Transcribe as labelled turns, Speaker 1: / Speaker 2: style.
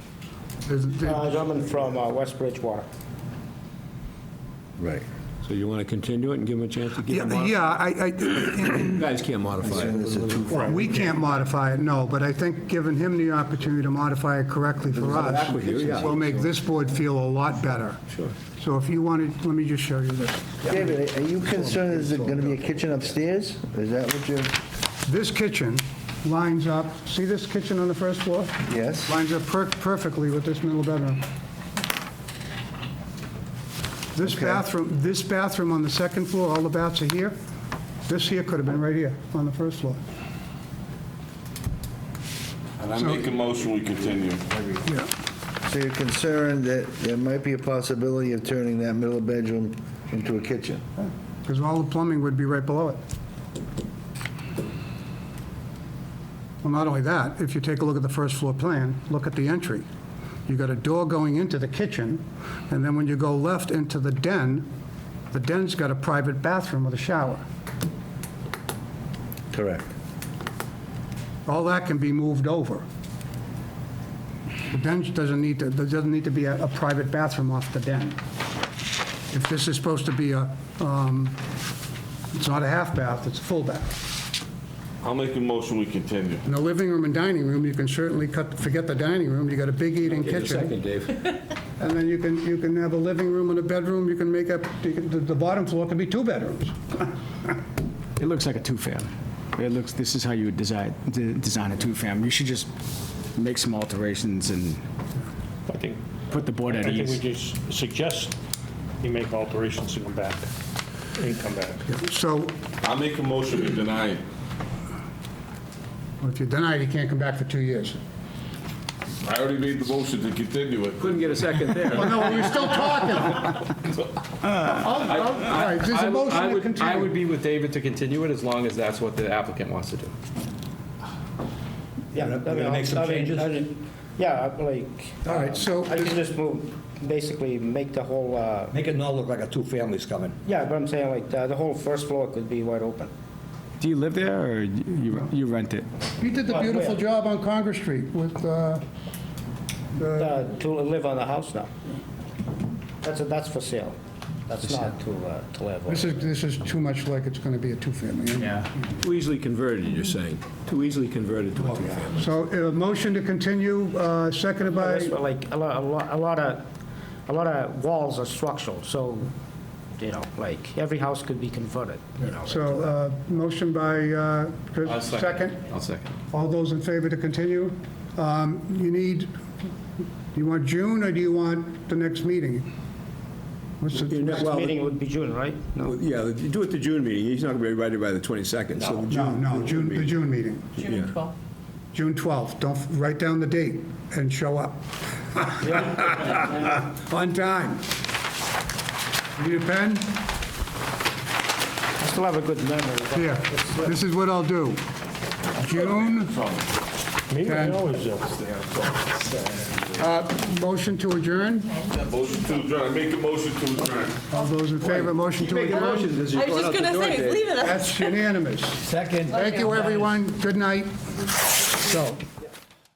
Speaker 1: There's-
Speaker 2: Uh, gentleman from uh, West Bridgewater.
Speaker 3: Right.
Speaker 4: So you want to continue it and give them a chance to get it
Speaker 1: Yeah,
Speaker 4: modified?
Speaker 1: yeah, I, I, and-
Speaker 4: You guys can't modify it.
Speaker 3: It's a two-
Speaker 1: and we can't modify it, no, but I think giving him the opportunity to modify it correctly for us
Speaker 4: with you, yeah.
Speaker 1: will make this board feel a lot better. Sure. So if you wanted, let me just show you this.
Speaker 3: David, are you concerned, is it gonna be a kitchen upstairs? Is that what you're,
Speaker 1: This kitchen lines up, see this kitchen on the first floor?
Speaker 3: Yes.
Speaker 1: Lines up per- perfectly with this middle bedroom. This bathroom, this bathroom on the second floor, all the baths are here. This here could have been right here on the first floor.
Speaker 5: And I make a motion, we continue.
Speaker 1: Yeah.
Speaker 3: so you're concerned that there might be a possibility of turning that middle bedroom into a kitchen?
Speaker 1: Because all the plumbing would be right below it. Well, not only that, if you take a look at the first floor plan, look at the entry. You got a door going into the kitchen, and then when you go left into the den, the den's got a private bathroom with a shower.
Speaker 3: Correct.
Speaker 1: All that can be moved over. The den doesn't need to, there doesn't need to be a, a private bathroom off the den. If this is supposed to be a, um, it's not a half bath, it's a full bath.
Speaker 5: I'll make a motion, we continue.
Speaker 1: In the living room and dining room, you can certainly cut, forget the dining room, you got a big eating
Speaker 4: Get a
Speaker 1: kitchen.
Speaker 4: second, Dave.
Speaker 1: And then you can, you can have a living room and a bedroom, you can make up, you can- the the bottom floor can be two bedrooms.
Speaker 6: It looks like a two-fam. It looks, this is how you would design, de- design a two-fam. You should just make some alterations and
Speaker 7: I think,
Speaker 6: put the board
Speaker 7: I
Speaker 6: at
Speaker 7: think we
Speaker 6: ease.
Speaker 7: just suggest you make alterations and come back, and come back.
Speaker 1: So
Speaker 5: I'll make a motion, we deny it.
Speaker 1: if you deny it, you can't come back for two years.
Speaker 5: I already made the motion to continue it.
Speaker 4: Couldn't get a second there.
Speaker 1: Well, no, we're still talking. All right, there's
Speaker 8: I would- I
Speaker 1: a motion to
Speaker 8: would- I would
Speaker 1: continue.
Speaker 8: be with David to continue it as long as that's what the applicant wants to do.
Speaker 2: Yeah.
Speaker 9: gonna make some changes?
Speaker 2: Yeah, I- like.
Speaker 1: All right, so-
Speaker 2: I can just move, basically make the whole, uh,
Speaker 9: Make it not look like a two families coming.
Speaker 2: yeah, but I'm saying like uh, the the whole first floor could be wide open.
Speaker 6: Do you live there or you, you rent it?
Speaker 1: You did the beautiful job on Congress Street with, uh,
Speaker 2: Uh, To live on the house now. That's, that's for sale. That's not to, uh, to live on.
Speaker 1: this is, this is too much like it's going to be a two-family.
Speaker 6: Yeah.
Speaker 4: Too easily converted, you're saying. Too easily converted to a two-family.
Speaker 1: So a motion to continue, uh, seconded by...
Speaker 2: That's what, Like, a lot, a lot, a lot of, a lot of walls are structural, so, you know, like, every house could be converted, you know.
Speaker 1: So, uh, motion by, uh, Chris-
Speaker 8: I'll
Speaker 1: second.
Speaker 8: I'll second.
Speaker 1: All those in favor to continue? Um, You need, do you want June, or do you want the next meeting? What's the-
Speaker 4: You're not-
Speaker 2: Next
Speaker 4: well,
Speaker 2: meeting would be June, right?
Speaker 4: well, Yeah, you do it the June meeting, he's not going to be ready by the 22nd, so the
Speaker 1: No,
Speaker 4: June.
Speaker 1: no, June, the June meeting,
Speaker 4: yeah.
Speaker 1: June 12th. Don't, write down the date and show up. On time. Need a pen?
Speaker 2: I still have a good memory. but-
Speaker 1: Here, this is what I'll do. June,
Speaker 7: Me, I
Speaker 1: Okay.
Speaker 7: always do.
Speaker 1: uh, motion to adjourn?
Speaker 5: Motion to adjourn, I make a motion to adjourn.
Speaker 1: All those in favor, motion to
Speaker 4: Make a
Speaker 1: adjourn?
Speaker 4: motion, this
Speaker 10: I
Speaker 4: is
Speaker 10: was
Speaker 4: going out
Speaker 10: just
Speaker 4: the
Speaker 10: gonna
Speaker 4: door,
Speaker 10: say,
Speaker 4: Dave.
Speaker 10: leave it.
Speaker 1: That's unanimous.
Speaker 9: Second.
Speaker 1: Thank you, everyone. Good night. So.